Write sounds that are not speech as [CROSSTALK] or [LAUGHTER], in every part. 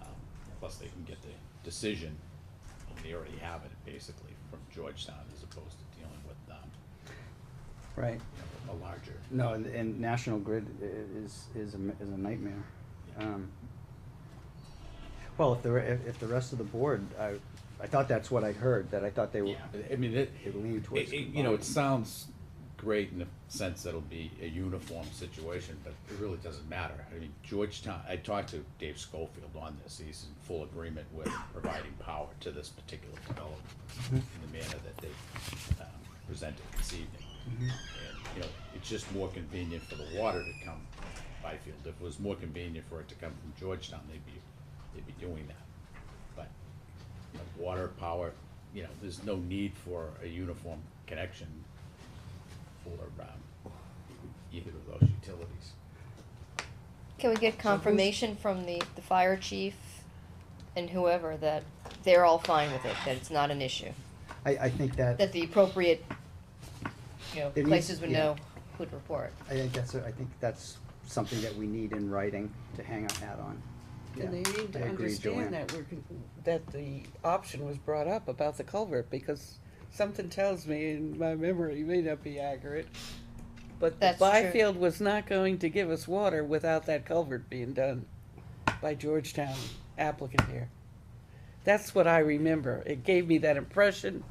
Um, plus they can get the decision, and they already have it, basically, from Georgetown, as opposed to dealing with, um, Right. you know, a larger. No, and, and National Grid i- is, is a, m- is a nightmare. Yeah. Um, Well, if the, re- if, if the rest of the board, I, I thought that's what I heard, that I thought they were, Yeah, I mean, it, they leaned towards it- it- you know, combined. it sounds great in the sense that it'll be a uniform situation, but it really doesn't matter. I mean, Georgetown, I talked to Dave Schofield on this, he's in full agreement with providing power to this particular development in the manner that they um, presented this evening. And, you know, it's just more convenient for the water to come from Byfield. If it was more convenient for it to come from Georgetown, they'd be, they'd be doing that. But you know, water, power, you know, there's no need for a uniform connection for, um, either of those utilities. Can we get confirmation from the, the fire chief and whoever that they're all fine with it, that it's not an issue? I, I think that, That the appropriate, you know, It needs- places would yeah. know who'd report? I think that's, a- I think that's something that we need in writing to hang our hat on. Yeah, And they need to I agree, Joanne. understand that we're, con- that the option was brought up about the culvert, because something tells me, and my memory may not be accurate, but the That's true. Byfield was not going to give us water without that culvert being done by Georgetown applicant here. That's what I remember. It gave me that impression.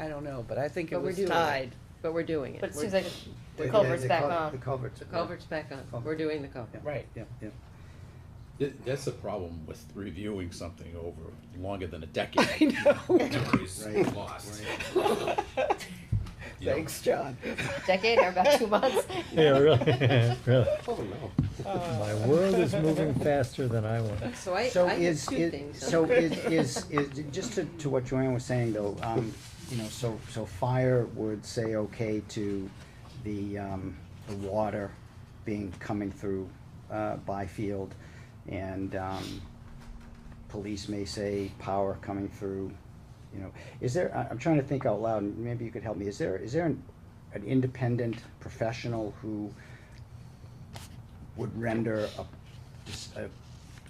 I don't know, but I think it But we're was doing it. tied. But we're doing it. But it We're- seems like Yeah, the culvert's the back cul- on. The culverts. The culvert's back on. We're Culvert. doing the culvert. Yeah, Right. Yeah, yeah. Th- That's the problem with reviewing something over longer [LAUGHS] than a decade. I know. Memories Right, lost. [LAUGHS] You know, Thanks, John. Decade or about [LAUGHS] two months? Yeah, really, [LAUGHS] really. Oh, My world is moving faster than I want. So I, So I have is, two is- things. [LAUGHS] so is, is, is, just to, to what Joanne was saying though, um, you know, so, so fire would say okay to the, um, the water being, coming through, uh, Byfield, and, um, police may say power coming through, you know, is there, I, I'm trying to think out loud, and maybe you could help me, is there, is there an, an independent professional who would render a, just a,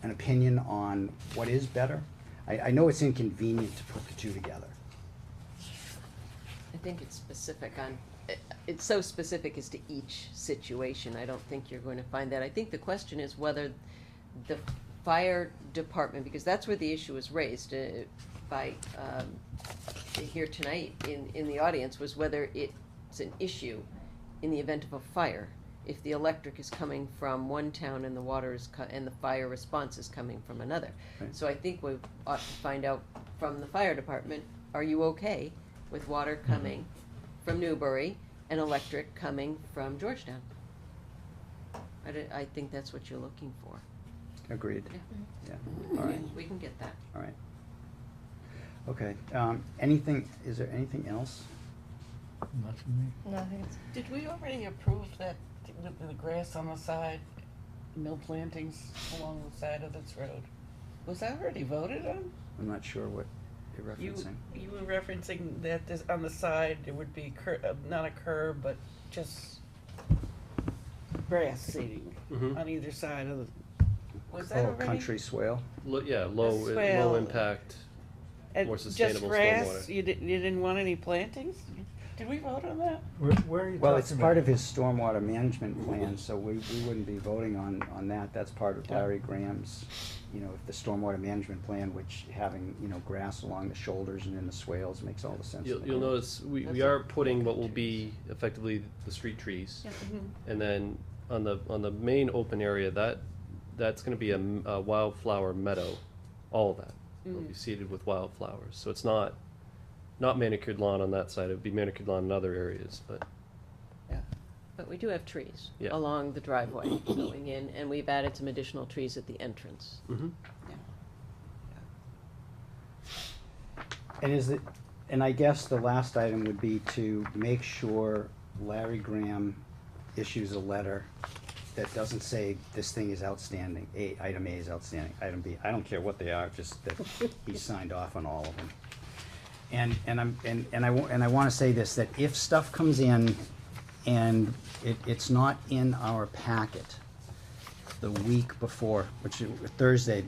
an opinion on what is better? I, I know it's inconvenient to put the two together. I think it's specific on, it- it's so specific as to each situation, I don't think you're going to find that. I think the question is whether the fire department, because that's where the issue was raised uh, by, um, here tonight in, in the audience, was whether it's an issue in the event of a fire. If the electric is coming from one town and the water is, co- and the fire response is coming from another. Right. So I think we ought to find out from the fire department, are you okay with water Mm-hmm. coming from Newbury and electric coming from Georgetown. I, di- I think that's what you're looking for. Agreed. Yeah. Yeah, all right, We can get that. all right. Okay, um, anything, is there anything else? Not for me. No, I think it's, Did we already approve that with the grass on the side, no plantings along the side of this road? Was that already voted on? I'm not sure what you're You, referencing. you were referencing that this, on the side, it would be cur, uh, not a curb, but just grass seating Mhm. on either side of the, was that Oh, already? country swale? Lo- yeah, low, swale. low impact. And more sustainable Just grass, stormwater. you didn't, you didn't want any plantings? Did we vote on that? Where, where are you talking Well, it's about? part of his stormwater management plan, so we, we wouldn't be voting on, on that, that's part of Yeah. Larry Graham's, you know, the stormwater management plan, which having, you know, grass along the shoulders and in the swales makes all the sense. in You'll, the you'll world. notice, we, we That's are putting what will be effectively the street trees. And then on the, on the main open area, that, that's gonna be a m- a wildflower meadow, all of that. It'll be seeded with wildflowers, so it's not, not manicured lawn on that side, it would be manicured lawn in other areas, but. But we do have trees Yeah. along the driveway [COUGHS] going in, and we've added some additional trees at the entrance. And is it, and I guess the last item would be to make sure Larry Graham issues a letter that doesn't say this thing is outstanding, A, item A is outstanding, item B, I don't care what they are, just that he signed off on all of them. And, and I'm, and, and I, wa- and I wanna say this, that if stuff comes in and it, it's not in our packet the week before, which, is Thursday,